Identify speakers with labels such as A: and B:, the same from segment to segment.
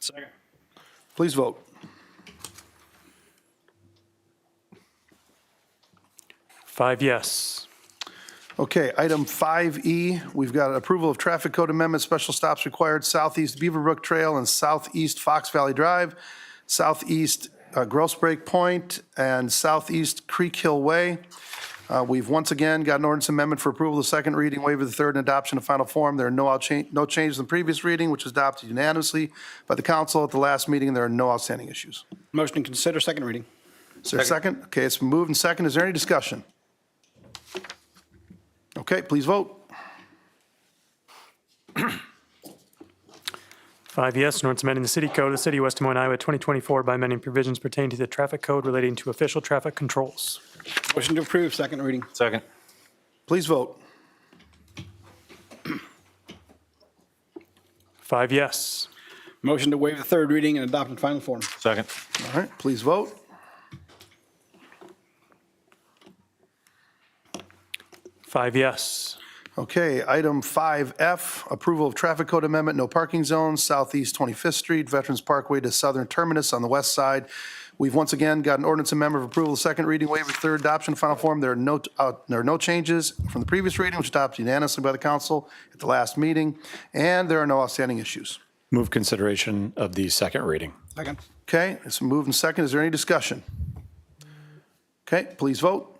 A: Second.
B: Please vote.
C: Five yes.
B: Okay, item 5E, we've got approval of traffic code amendment, special stops required southeast Beaverbrook Trail and southeast Fox Valley Drive, southeast uh, Gross Break Point, and southeast Creek Hill Way. Uh, We've once again got an ordinance amendment for approval of the second reading, waiver of the third, and adoption of final form. There are no out cha- no changes in the previous reading, which was adopted unanimously by the council at the last meeting, and there are no outstanding issues.
A: Motion to consider second reading.
B: Is there a second? Okay, it's been moved and second. Is there any discussion? Okay, please vote.
C: Five yes, an ordinance amending the city code of the city of West Des Moines, Iowa, 2024 by amending provisions pertaining to the traffic code relating to official traffic controls.
A: Motion to approve second reading.
D: Second.
B: Please vote.
C: Five yes.
A: Motion to waive the third reading and adopt in final form.
D: Second.
B: All right, please vote.
C: Five yes.
B: Okay, item 5F, approval of traffic code amendment, no parking zone, southeast 25th Street, Veterans Parkway to southern terminus on the west side. We've once again got an ordinance amendment of approval, second reading, waiver, third adoption, final form. There are no, uh, there are no changes from the previous reading, which adopted unanimously by the council at the last meeting, and there are no outstanding issues.
E: Move consideration of the second reading.
A: Second.
B: Okay, it's moved and second. Is there any discussion? Okay, please vote.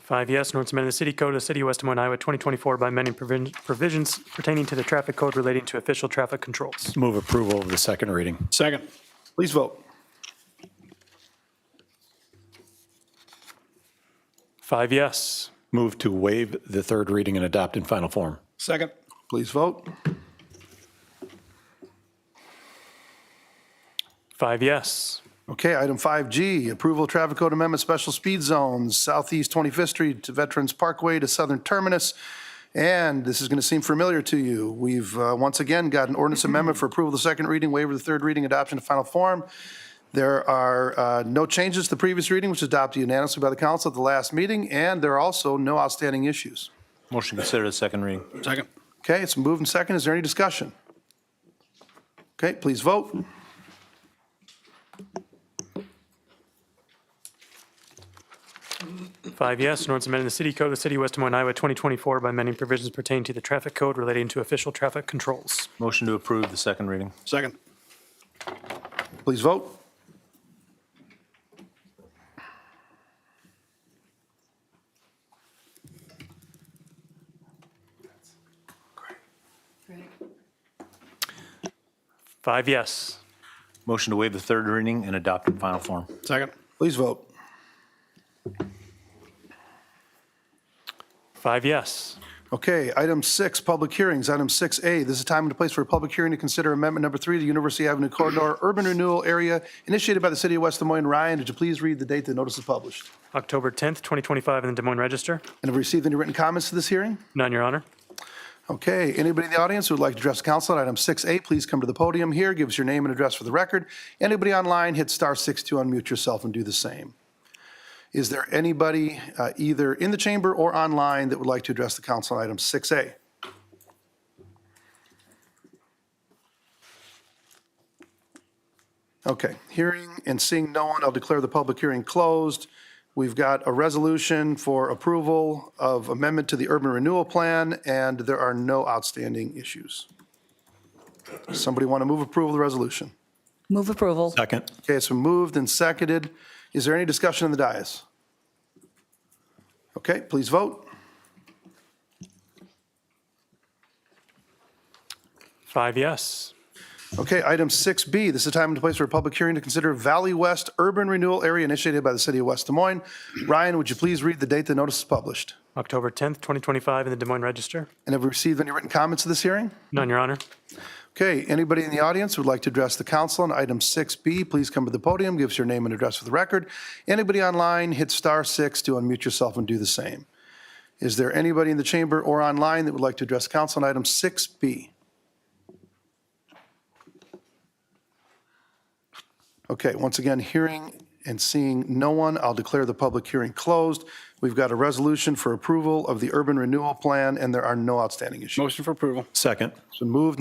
C: Five yes, an ordinance amending the city code of the city of West Des Moines, Iowa, 2024 by amending provin- provisions pertaining to the traffic code relating to official traffic controls.
E: Move approval of the second reading.
A: Second.
B: Please vote.
C: Five yes.
E: Move to waive the third reading and adopt in final form.
A: Second.
B: Please vote.
C: Five yes.
B: Okay, item 5G, approval of traffic code amendment, special speed zones, southeast 25th Street to Veterans Parkway to southern terminus. And this is going to seem familiar to you. We've uh, once again got an ordinance amendment for approval of the second reading, waiver of the third reading, adoption of final form. There are uh, no changes to the previous reading, which was adopted unanimously by the council at the last meeting, and there are also no outstanding issues.
D: Motion to consider the second reading.
A: Second.
B: Okay, it's moved and second. Is there any discussion? Okay, please vote.
C: Five yes, an ordinance amending the city code of the city of West Des Moines, Iowa, 2024 by amending provisions pertaining to the traffic code relating to official traffic controls.
D: Motion to approve the second reading.
A: Second.
B: Please vote.
C: Five yes.
D: Motion to waive the third reading and adopt in final form.
A: Second.
B: Please vote.
C: Five yes.
B: Okay, item six, public hearings. Item 6A, this is time and place for a public hearing to consider amendment number three to University Avenue Corridor Urban Renewal Area initiated by the City of West Des Moines. Ryan, did you please read the date the notice is published?
C: October 10th, 2025 in the Des Moines Register.
B: And have we received any written comments to this hearing?
C: None, Your Honor.
B: Okay, anybody in the audience who would like to address the council on item 6A, please come to the podium here, give us your name and address for the record. Anybody online, hit star six to unmute yourself and do the same. Is there anybody uh, either in the chamber or online that would like to address the council on item 6A? Okay, hearing and seeing no one, I'll declare the public hearing closed. We've got a resolution for approval of amendment to the urban renewal plan, and there are no outstanding issues. Does Somebody want to move approval of the resolution?
F: Move approval.
E: Second.
B: Okay, it's been moved and seconded. Is there any discussion in the dais? Okay, please vote.
C: Five yes.
B: Okay, item 6B, this is time and place for a public hearing to consider Valley West Urban Renewal Area initiated by the City of West Des Moines. Ryan, would you please read the date the notice is published?
C: October 10th, 2025 in the Des Moines Register.
B: And have we received any written comments to this hearing?
C: None, Your Honor.
B: Okay, anybody in the audience who would like to address the council on item 6B, please come to the podium, give us your name and address for the record. Anybody online, hit star six to unmute yourself and do the same. Is there anybody in the chamber or online that would like to address council on item 6B? Okay, once again, hearing and seeing no one, I'll declare the public hearing closed. We've got a resolution for approval of the urban renewal plan, and there are no outstanding issues.
A: Motion for approval.
E: Second.
B: So moved